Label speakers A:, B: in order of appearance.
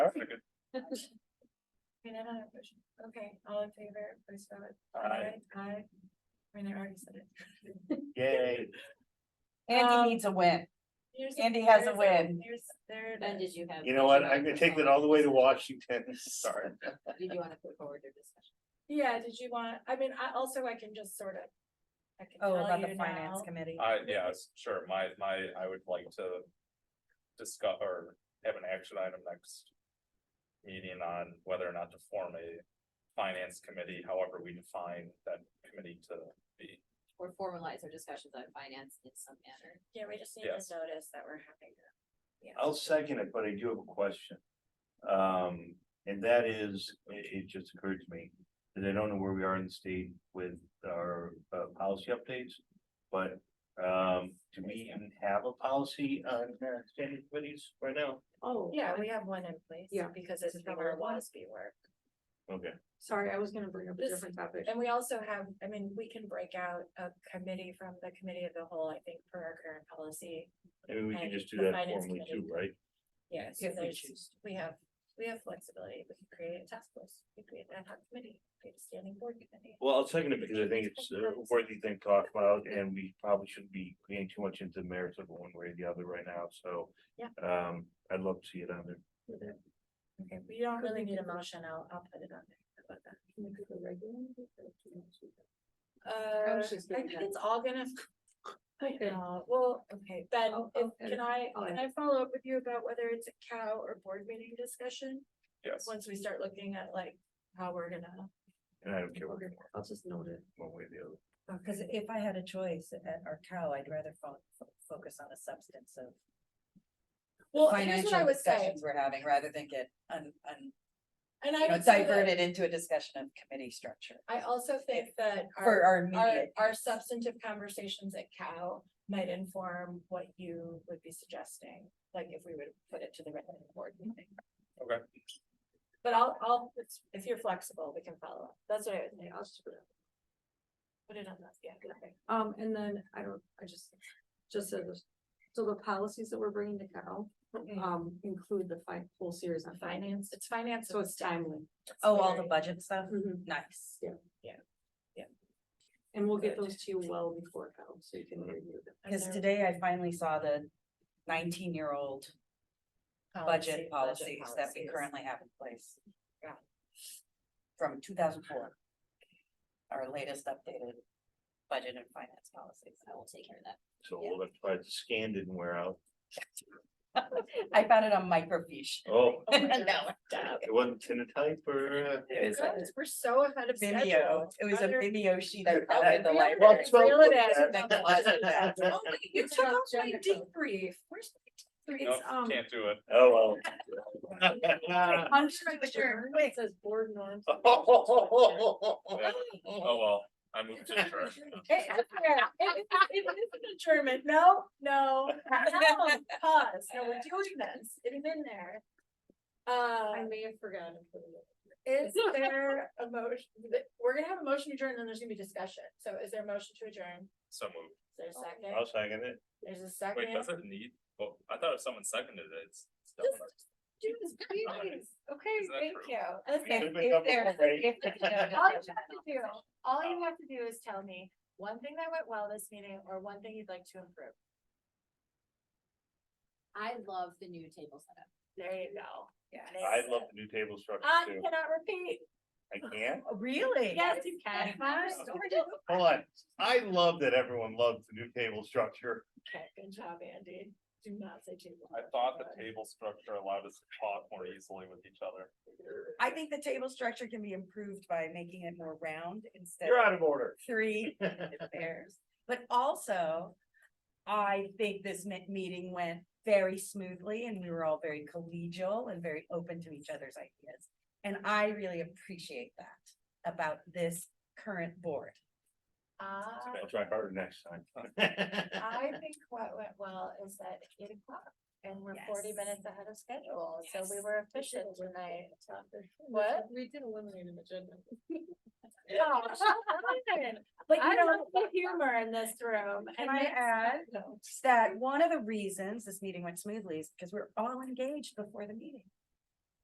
A: Okay, all in favor, please vote.
B: Aye.
A: Aye. I mean, I already said it.
B: Yay.
A: Um,
C: Andy needs a win.
A: Here's-
C: Andy has a
A: there's
C: win.
A: Here's, there
D: Then
A: it
D: did
A: is.
D: you have?
B: You know what? I'm gonna take that all the way to Washington. Sorry.
D: Did you wanna put forward your discussion?
A: Yeah, did you want, I mean, I also, I can just sort of. I can
C: Oh,
A: tell
C: about the
A: you
C: finance
A: now.
C: committee.
E: I, yes, sure, my, my, I would like to discuss or have an action item next meeting on whether or not to form a finance committee, however we define that committee to be.
D: Or formalize our discussions on finance in some manner.
A: Yeah, we just need to
E: Yes.
A: notice that we're having. a-
B: I'll second it, but I do have a question. Um, and that is, it, it just occurred to me, that I don't know where we are in the state with our, uh, policy updates. But, um, do we even have a policy on uh, standing committees right now?
F: Oh.
A: Yeah, we have one in place.
F: Yeah.
A: Because it's
F: It's
A: from
F: number
A: our
F: one.
A: WASB work.
B: Okay,
F: Sorry, I was gonna bring up a
A: This-
F: different topic.
C: uh,
A: And we also have, I mean, we can break out a committee from the committee of the whole, I think, for our current policy.
B: maybe we
A: And
B: can just do
A: Uh, the
B: that
A: finance
B: formally too,
A: committee.
B: right?
A: Yeah, so
C: If we
A: there's,
C: choose.
A: we have, we have flexibility. We can create a task force, we create an ad hoc committee, create a standing board committee.
B: Well, I'll second it because I think it's a worthy thing to talk about and we probably shouldn't be getting too much into the merits of it one way or the other right now, so.
A: Yeah.
B: Um, I'd love to see it on there.
A: Okay, we don't
F: Could
A: really
F: we
A: need
F: do
A: a
F: that?
A: motion. I'll, I'll put it on there. How about that?
F: Can we do the regular one or do you want to do
A: Uh, I
F: was just
A: think
F: thinking that.
A: it's all gonna. I
F: Okay.
A: know. well, okay, Ben,
F: I'll-
A: if-
F: I'll edit
A: can I,
F: I'll
A: can I follow up with you about whether it's a cow or board meeting discussion?
E: Yes,
A: Once we start looking at like how we're gonna,
B: And I don't care
F: that?
B: what,
F: Okay, I'll just note it.
B: one way or the other.
C: oh, Cause if I had a choice at our cow, I'd rather fo- fo- focus on the substance of
A: well, here's what I
C: financial
A: would say,
C: discussions we're having rather than get un, un,
A: and I
C: you know,
A: would say that,
C: diverted into a discussion of committee structure
A: I also think that
C: for
A: our,
C: our
A: our,
C: immediate.
A: our
C: needs.
A: substantive conversations at cow might inform what you would be suggesting, like if we would put it to the regular board meeting.
E: okay,
A: But I'll, I'll, it's- if you're flexible, we can follow up. That's what I would say.
F: Yeah, I'll just put it.
A: Put it on that, yeah, good thing.
F: Um, and then I don't, I just, just said this. So the policies that we're bringing to Cal, um, include the fi- whole series on
A: Finance,
F: finance,
A: it's finance.
F: so it's timely.
C: Oh, all the
A: very-
C: budget stuff?
F: Mhm.
C: Nice.
F: And we'll get
A: Good.
F: those to you well before Cal, so you
E: Mm-hmm.
F: can review them.
A: and
C: Cause
A: their
C: today I finally saw the nineteen-year-old budget
A: policy- budget
C: policies that we
A: policies.
C: currently have in place.
A: Yeah.
C: From two thousand four. Our latest updated budget and finance policies.
D: I will take care of that.
B: So we'll have to try to scan didn't wear out.
C: I found it on microfiche.
B: Oh,
A: Oh my
C: No,
A: God, stop.
B: it wasn't tintype or, uh,
C: It was a
A: Guys, We're so ahead of
C: video,
A: schedule.
C: it was a
A: Other-
C: video sheet I found
A: Okay,
C: at the
A: reel it in,
C: library.
A: reel it in.
C: Thank you.
A: Oh, wait, You took off my debrief. Where's my
E: no,
A: debrief?
F: um,
E: can't do it.
B: oh, Uh,
F: Under
A: Sure.
F: the chair, it says board norms.
B: well.
E: Oh, well, I moved to church.
A: Hey, I swear, It it- it is an adjournment. No, no, no, pause. No, we're doing this. It is in there.
F: I
A: Uh,
F: may have forgotten. to put it in.
A: is there a motion? We're gonna have a motion adjourned and then there's gonna be discussion. So is there a motion to adjourn?
E: So moved.
A: Is there a second?
B: I'll second it.
A: There's a
E: Wait,
A: second.
E: does it need, well, I thought if someone seconded it, it's. it's
A: Just
E: done.
A: do this, please. Okay,
E: Is that
A: thank
E: true?
A: you.
B: We
A: Listen,
B: should've been
C: If there-
B: coming
C: if there's no-
A: All you have to do, all you have to do is tell me one thing that went well this meeting or one thing you'd like to improve.
D: I love the new table setup.
A: There you go.
C: Yeah.
B: I love the new table structure
C: Um,
A: I
B: too.
A: cannot repeat.
B: I can't.
F: Oh,
C: Really?
A: Yes, you can.
C: Wow.
B: Hold on. I love that everyone loves the new table structure.
A: Okay, good job, Andy. Do not say too.
E: I thought the table structure allowed us to talk more easily with each other.
C: I think the table structure can be improved by making it more round instead
B: You're
C: of
B: out of order.
C: three pairs. But also, I think this me- meeting went very smoothly and we were all very collegial and very open to each other's ideas. And I really appreciate that about this current board.
A: I,
B: I'll try harder next time.
A: Uh,
C: Uh,
A: I think what went well is that it's eight o'clock and we're forty
C: Yes.
A: minutes ahead of schedule, so we
C: Yes.
A: were efficient tonight. What?
F: What? We did eliminate an agenda.
A: Oh, fun. But you
F: I
A: know,
F: love
A: the humor in this room.
C: Can
A: and
C: I
A: next
C: add?
A: time-
C: That one of the reasons this meeting went smoothly is because we're all engaged before the meeting.